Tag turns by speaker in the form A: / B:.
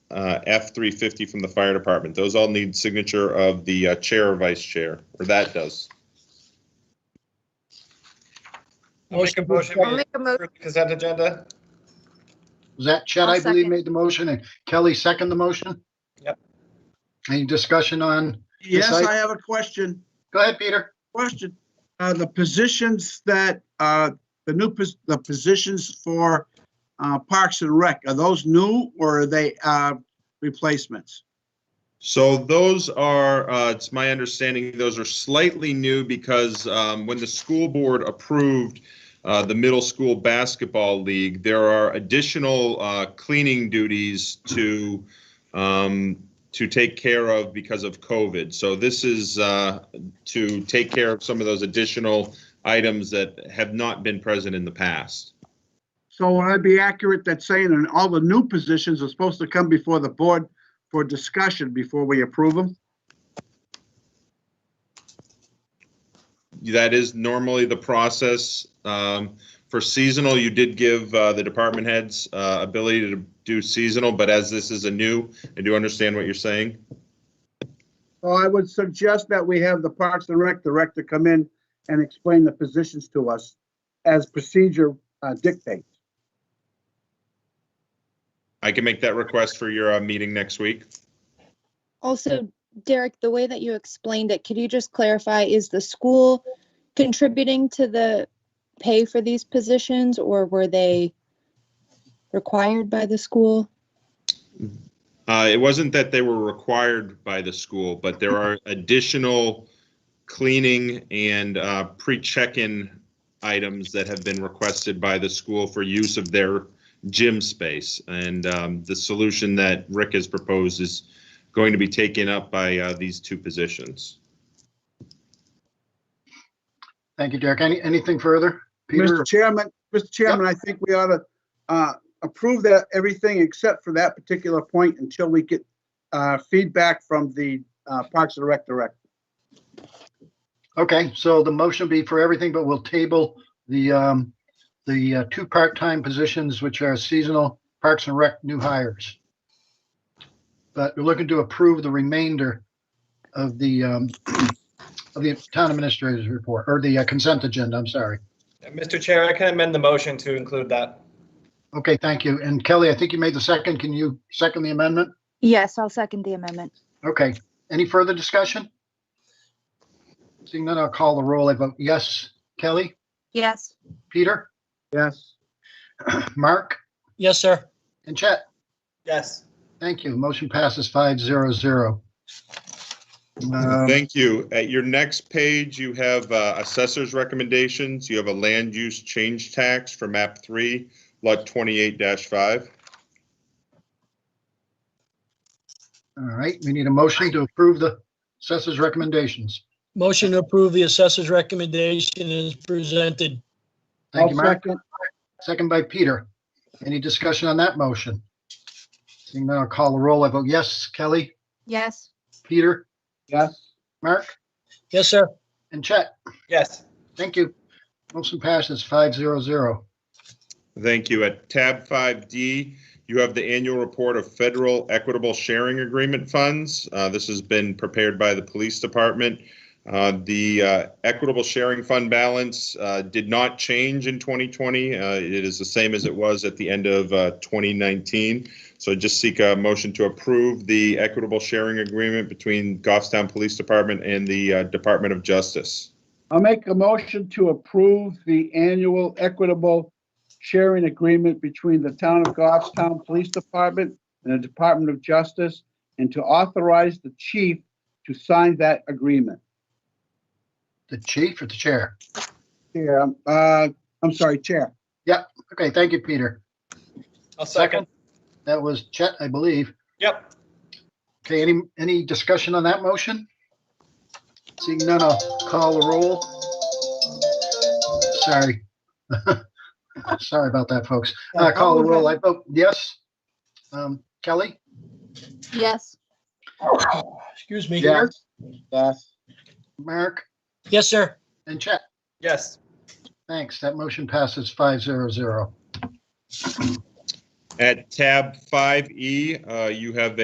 A: uh, F-350 from the fire department. Those all need signature of the uh, chair or vice chair, or that does.
B: I'll make a motion
C: I'll
B: to
C: make a mo,
B: approve the consent agenda.
D: Was that Chad,
C: I'll
D: I believe,
C: second.
D: made the motion and Kelly second the motion?
B: Yep.
D: Any discussion on,
E: Yes,
D: Yes, I-
E: I have a question,
D: go ahead, Peter.
E: question. Uh, the positions that, uh, the new, pos- the positions for, uh, Parks and Rec, are those new or are they, uh, replacements?
A: So those are, uh, it's my understanding, those are slightly new because um, when the school board approved uh, the middle school basketball league, there are additional uh, cleaning duties to um, to take care of because of COVID. So this is uh, to take care of some of those additional items that have not been present in the past.
E: So would I be accurate that saying that all the new positions are supposed to come before the board for discussion before we approve them?
A: That is normally the process. Um, For seasonal, you did give uh, the department heads uh, ability to do seasonal, but as this is a new, I do understand what you're saying.
E: Well, I would suggest that we have the Parks and Rec director come in and explain the positions to us as procedure uh, dictates.
A: I can make that request for your uh, meeting next week.
F: Also, Derek, the way that you explained it, could you just clarify, is the school contributing to the pay for these positions or were they required by the school?
A: Uh, It wasn't that they were required by the school, but there are additional cleaning and uh, pre-check-in items that have been requested by the school for use of their gym space. And um, the solution that Rick has proposed is going to be taken up by uh, these two positions.
D: Thank you, Derek. Any, anything further? Peter,
E: Mr. Chairman, Mr. Chairman, I think we ought to uh, approve that, everything except for that particular point until we get uh, feedback from the uh, Parks and Rec director.
D: okay, so the motion will be for everything, but we'll table the, um, the uh, two part-time positions, which are seasonal Parks and Rec new hires. But we're looking to approve the remainder of the, um, of the town administrator's report, or the uh, consent agenda, I'm sorry.
B: Mr. Chair, I can amend the motion to include that.
D: Okay, thank you. And Kelly, I think you made the second. Can you second the amendment?
C: yes, I'll second the amendment.
D: Okay, any further discussion? Seeing none, I'll call the roll. I vote yes. Kelly,
C: Yes.
D: Peter,
E: Yes,
D: Mark,
G: Yes, sir.
D: and Chet.
B: Yes.
D: Thank you. Motion passes five zero zero. Um,
A: Thank you. At your next page, you have uh, assessor's recommendations. You have a land use change tax for map three, lot 28-5.
D: All right, we need a motion to approve the assessor's recommendations.
G: Motion to approve the assessor's recommendation is presented.
D: Thank
E: I'll
D: you, Mark.
E: second.
D: Second by Peter. Any discussion on that motion? Seeing none, I'll call the roll. I vote yes. Kelly,
C: Yes.
D: Peter,
E: Yes,
D: Mark,
G: Yes, sir.
D: and Chet.
B: Yes.
D: Thank you. Motion passes five zero zero.
A: Thank you. At tab 5D, you have the annual report of federal equitable sharing agreement funds. Uh, This has been prepared by the police department. Uh, The uh, equitable sharing fund balance uh, did not change in 2020. Uh, It is the same as it was at the end of uh, 2019. So I just seek a motion to approve the equitable sharing agreement between Goffstown Police Department and the uh, Department of Justice.
E: I'll make a motion to approve the annual equitable sharing agreement between the Town of Goffstown Police Department and the Department of Justice, and to authorize the chief to sign that agreement.
D: The chief or the chair?
E: Chair, uh, I'm sorry, Chair.
D: Okay, thank you, Peter.
B: I'll second.
D: That was Chet, I believe.
B: Yep.
D: Okay, any, any discussion on that motion? Seeing none, I'll call the roll. Sorry. Sorry about that, folks. I call the roll. I vote yes. Um, Kelly?
C: Yes.
G: Excuse me.
D: Yes.
E: Yes.
D: Mark
G: Yes, sir.
D: and Chet?
B: Yes.
D: Thanks. That motion passes five zero zero.
A: At tab 5E, uh, you have